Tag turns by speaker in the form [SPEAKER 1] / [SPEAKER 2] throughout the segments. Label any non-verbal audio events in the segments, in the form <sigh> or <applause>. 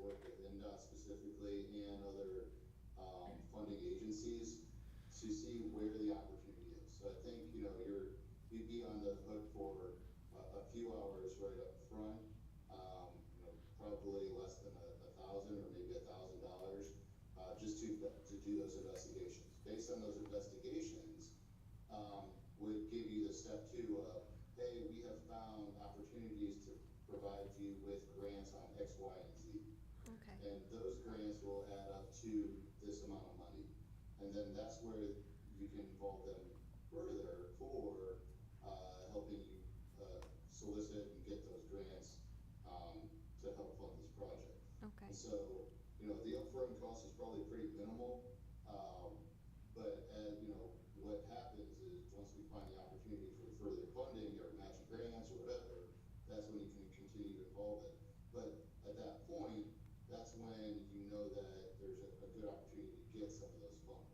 [SPEAKER 1] um, um, uh, um, And then that's where you can involve them further for, uh, helping you, uh, solicit and get those grants, um, to help fund this project.
[SPEAKER 2] Okay,
[SPEAKER 1] And so, you know, the upfront cost is probably pretty minimal, um, but, uh, you know, what happens is, once we find the opportunity for further funding or matching grants or whatever, that's when you can continue to evolve it. But at that point, that's when you know that there's a, a good opportunity to get some of those funds.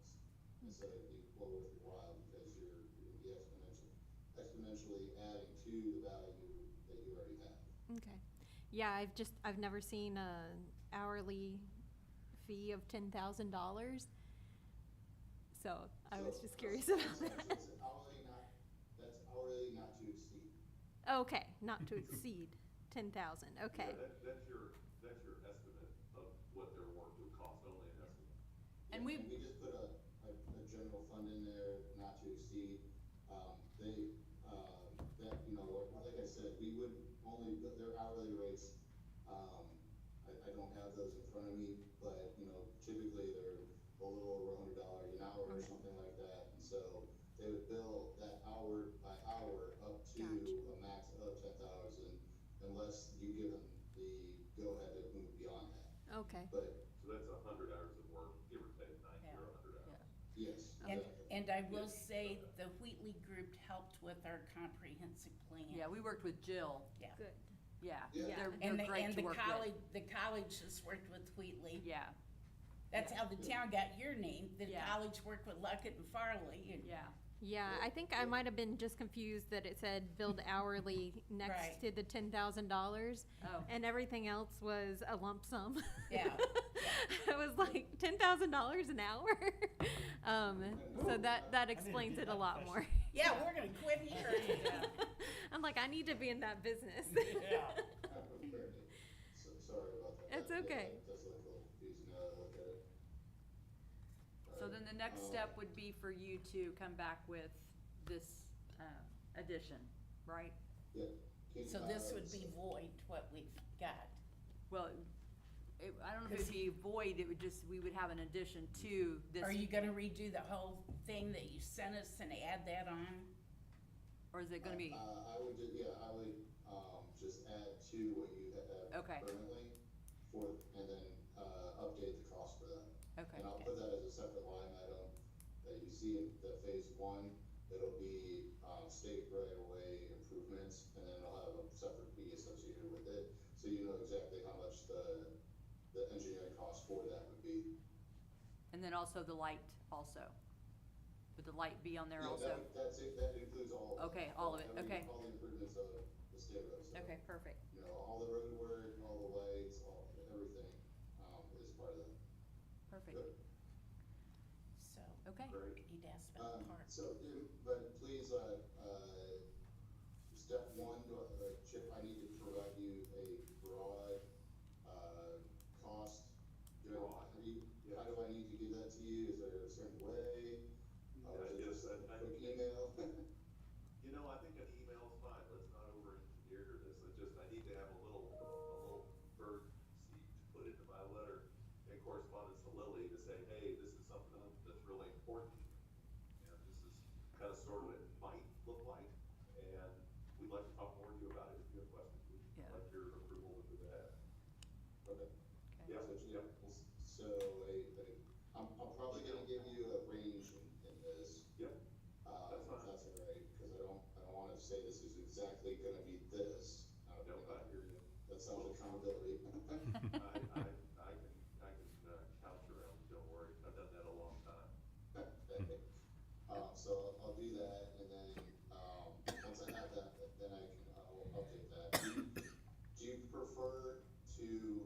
[SPEAKER 1] And so it'd be well worth your while, because you're, you'd be exponentially, exponentially adding to the value that you already have.
[SPEAKER 2] okay. Yeah, I've just, I've never seen a hourly fee of ten thousand dollars. So I was
[SPEAKER 1] So,
[SPEAKER 2] just curious
[SPEAKER 1] that's- <laughs>
[SPEAKER 2] about
[SPEAKER 1] that's-
[SPEAKER 2] that.
[SPEAKER 1] That's hourly not, that's hourly not to exceed.
[SPEAKER 2] Okay, not to exceed ten thousand,
[SPEAKER 3] Yeah,
[SPEAKER 2] okay.
[SPEAKER 3] that, that's your, that's your estimate of what their work would cost, only an estimate.
[SPEAKER 4] And
[SPEAKER 1] Yeah,
[SPEAKER 4] we-
[SPEAKER 1] We just put a, a, a general fund in there, not to exceed, um, they, uh, that, you know, like I said, we would only, their hourly rates, um, I, I don't have those in front of me, but, you know, typically they're a little over a hundred dollars an hour or
[SPEAKER 2] Okay.
[SPEAKER 1] something like that, and so they would bill that hour by hour up
[SPEAKER 2] Gotcha.
[SPEAKER 1] to a max of ten thousand, unless you give them the go-ahead to move beyond that,
[SPEAKER 2] Okay,
[SPEAKER 1] but,
[SPEAKER 3] So that's a hundred hours of work, give or take ninety or
[SPEAKER 4] Yeah,
[SPEAKER 3] a hundred
[SPEAKER 4] yeah.
[SPEAKER 3] hours.
[SPEAKER 1] yes.
[SPEAKER 5] And,
[SPEAKER 1] definitely.
[SPEAKER 5] and I will say, the Wheatley group helped with our comprehensive plan.
[SPEAKER 4] Yeah, we worked with Jill,
[SPEAKER 5] Yeah.
[SPEAKER 2] good.
[SPEAKER 4] yeah.
[SPEAKER 1] Yeah.
[SPEAKER 4] They're,
[SPEAKER 5] And
[SPEAKER 4] they're
[SPEAKER 5] the,
[SPEAKER 4] great
[SPEAKER 5] and
[SPEAKER 4] to
[SPEAKER 5] the
[SPEAKER 4] work
[SPEAKER 5] college,
[SPEAKER 4] with.
[SPEAKER 5] the college has worked with Wheatley.
[SPEAKER 4] Yeah,
[SPEAKER 5] That's how the town got your name. The
[SPEAKER 4] Yeah.
[SPEAKER 5] college worked with Luckett and Farley. and-
[SPEAKER 4] yeah,
[SPEAKER 2] Yeah, I think I might have been just confused that it said billed hourly next
[SPEAKER 5] Right.
[SPEAKER 2] to the ten thousand dollars.
[SPEAKER 4] Oh.
[SPEAKER 2] And everything else was a lump sum. <laughs>
[SPEAKER 5] Yeah.
[SPEAKER 2] I was like, ten thousand dollars an hour? <laughs> Um, so that, that explains it a lot more.
[SPEAKER 5] Yeah, we're gonna
[SPEAKER 4] <laughs>
[SPEAKER 5] quit
[SPEAKER 2] <laughs>
[SPEAKER 5] here.
[SPEAKER 2] I'm like, I need to be in that business. <laughs>
[SPEAKER 6] Yeah.
[SPEAKER 1] So- Sorry about that.
[SPEAKER 2] It's
[SPEAKER 1] That-
[SPEAKER 2] okay.
[SPEAKER 1] that Does look a little confusing now that I look at it.
[SPEAKER 4] so then the next
[SPEAKER 1] Um,
[SPEAKER 4] step would be for you to come back with this, uh, addition, right?
[SPEAKER 1] yeah, can-
[SPEAKER 5] So this would be
[SPEAKER 1] uh,
[SPEAKER 5] void, what we've got.
[SPEAKER 4] Well, it, I don't know if it'd be void, it would just, we would have an addition to this.
[SPEAKER 5] Are you gonna redo the whole thing that you sent us and add that on?
[SPEAKER 4] Or is it gonna be,
[SPEAKER 1] Uh, I would, ju- yeah, I would, um, just add to what you have
[SPEAKER 4] Okay.
[SPEAKER 1] currently for, and then, uh, update the cost for that.
[SPEAKER 4] Okay.
[SPEAKER 1] And I'll put that as a separate line item that you see in the phase one, it'll be, um, state right of way improvements, and then it'll have a separate fee associated with it. So you know exactly how much the, the engineering cost for that would be.
[SPEAKER 4] and then also the light also? Would the light be on there
[SPEAKER 1] Yeah,
[SPEAKER 4] also?
[SPEAKER 1] that- That's it, that includes all. of
[SPEAKER 4] Okay, all of it,
[SPEAKER 1] every-
[SPEAKER 4] okay.
[SPEAKER 1] All the improvements of the state roads. so,
[SPEAKER 4] Okay, perfect.
[SPEAKER 1] You know, all the road work, all the lights, all, everything, um, is part of that.
[SPEAKER 4] Perfect.
[SPEAKER 1] But-
[SPEAKER 5] So,
[SPEAKER 4] Okay.
[SPEAKER 3] Great.
[SPEAKER 5] you'd ask about the
[SPEAKER 1] Um,
[SPEAKER 5] park.
[SPEAKER 1] so, um, but please, uh, uh, step one, uh, Chip, I need to provide you a broad, uh, cost. Do I, how do you, how do I need to give that to you? Is there a certain way? Or is it
[SPEAKER 3] Yeah,
[SPEAKER 1] just a
[SPEAKER 3] Mm, yes, I- I-
[SPEAKER 1] quick email?
[SPEAKER 3] You know, I think an email's fine, let's not over engineer this, I just, I need to have a little, a little bird seed to put into my letter in correspondence to Lily to say, hey, this is something that's really important. And this is kind of sort of what it might look like, and we'd like to talk more to you about it if you have questions. We'd
[SPEAKER 4] Yeah.
[SPEAKER 3] Like your approval to do that.
[SPEAKER 1] Okay.
[SPEAKER 4] Okay.
[SPEAKER 3] Yeah,
[SPEAKER 1] <laughs> So, So,
[SPEAKER 3] yeah.
[SPEAKER 1] a, a, I'm, I'm probably gonna give you a range in, in this,
[SPEAKER 3] Yep,
[SPEAKER 1] uh,
[SPEAKER 3] That's
[SPEAKER 1] if
[SPEAKER 3] fine.
[SPEAKER 1] that's all right, cause I don't, I don't wanna say this is exactly gonna be this. Uh, I don't
[SPEAKER 3] no,
[SPEAKER 1] think
[SPEAKER 3] I
[SPEAKER 1] I-
[SPEAKER 3] hear you.
[SPEAKER 1] That sounds accountability.
[SPEAKER 3] I, I, I can, I can uh, couch around, don't worry, I've done that a long time.
[SPEAKER 1] Um, so I'll- I'll do that, and then, um, once I have that, then I can, uh, will update that. Do you- Do you prefer to